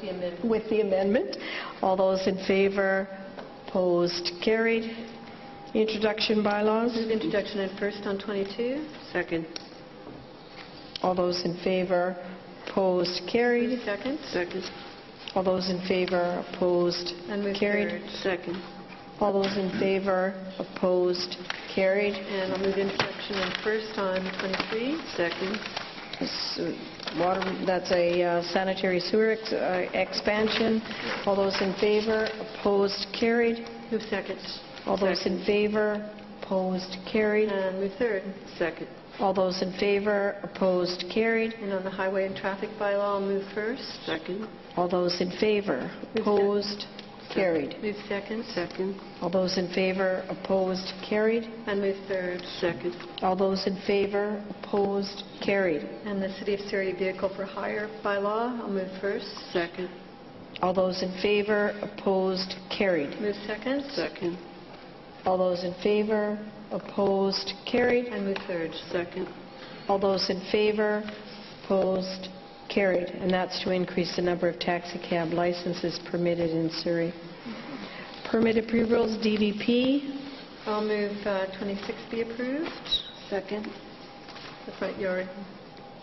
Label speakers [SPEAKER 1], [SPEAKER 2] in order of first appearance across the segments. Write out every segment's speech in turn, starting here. [SPEAKER 1] the amendment.
[SPEAKER 2] with the amendment. All those in favor, opposed, carried. Introduction bylaws.
[SPEAKER 1] Move introduction and first on 22.
[SPEAKER 3] Second.
[SPEAKER 2] All those in favor, opposed, carried.
[SPEAKER 1] Second.
[SPEAKER 3] Second.
[SPEAKER 2] All those in favor, opposed,
[SPEAKER 1] And move
[SPEAKER 2] carried.
[SPEAKER 1] third.
[SPEAKER 3] Second.
[SPEAKER 2] All those in favor, opposed, carried.
[SPEAKER 1] And I'll move introduction and first on 23.
[SPEAKER 3] Second.
[SPEAKER 2] S- uh, Water, that's a uh, sanitary sewer ex- uh, expansion. All those in favor, opposed, carried.
[SPEAKER 1] Move second.
[SPEAKER 2] All those in favor, opposed, carried.
[SPEAKER 1] And move third.
[SPEAKER 3] Second.
[SPEAKER 2] All those in favor, opposed, carried.
[SPEAKER 1] And on the highway and traffic bylaw, I'll move first.
[SPEAKER 3] Second.
[SPEAKER 2] All those in favor, opposed, carried.
[SPEAKER 1] Move second.
[SPEAKER 3] Second.
[SPEAKER 2] All those in favor, opposed, carried.
[SPEAKER 1] And move third.
[SPEAKER 3] Second.
[SPEAKER 2] All those in favor, opposed, carried.
[SPEAKER 1] And the City of Surrey Vehicle for Hire bylaw, I'll move first.
[SPEAKER 3] Second.
[SPEAKER 2] All those in favor, opposed, carried.
[SPEAKER 1] Move second.
[SPEAKER 3] Second.
[SPEAKER 2] All those in favor, opposed, carried.
[SPEAKER 1] And move third.
[SPEAKER 3] Second.
[SPEAKER 2] All those in favor, opposed, carried. And that's to increase the number of taxi cab licenses permitted in Surrey. Permit approvals, DVP.
[SPEAKER 1] I'll move uh, 26 be approved.
[SPEAKER 3] Second.
[SPEAKER 1] The front yard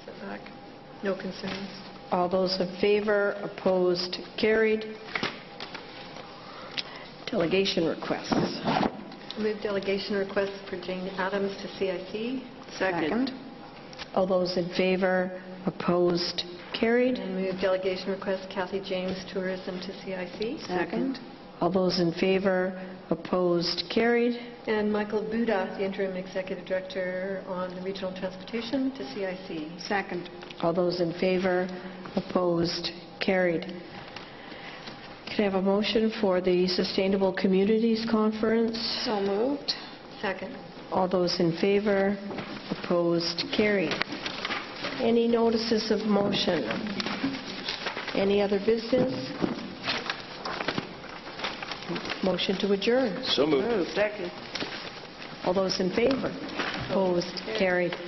[SPEAKER 1] setback, no concerns.
[SPEAKER 2] All those in favor, opposed, carried. Delegation requests.
[SPEAKER 1] Move delegation request for Jane Adams to CIC.
[SPEAKER 3] Second.
[SPEAKER 2] All those in favor, opposed, carried.
[SPEAKER 1] And move delegation request Kathy James Tourism to CIC.
[SPEAKER 3] Second.
[SPEAKER 2] All those in favor, opposed, carried.
[SPEAKER 1] And Michael Buda, the interim executive director on the regional transportation to CIC.
[SPEAKER 3] Second.
[SPEAKER 2] All those in favor, opposed, carried. Could I have a motion for the Sustainable Communities Conference?
[SPEAKER 3] So moved.
[SPEAKER 1] Second.
[SPEAKER 2] All those in favor, opposed, carried. Any notices of motion? Any other business? Motion to adjourn.
[SPEAKER 4] So moved.
[SPEAKER 3] Second.
[SPEAKER 2] All those in favor, opposed, carried.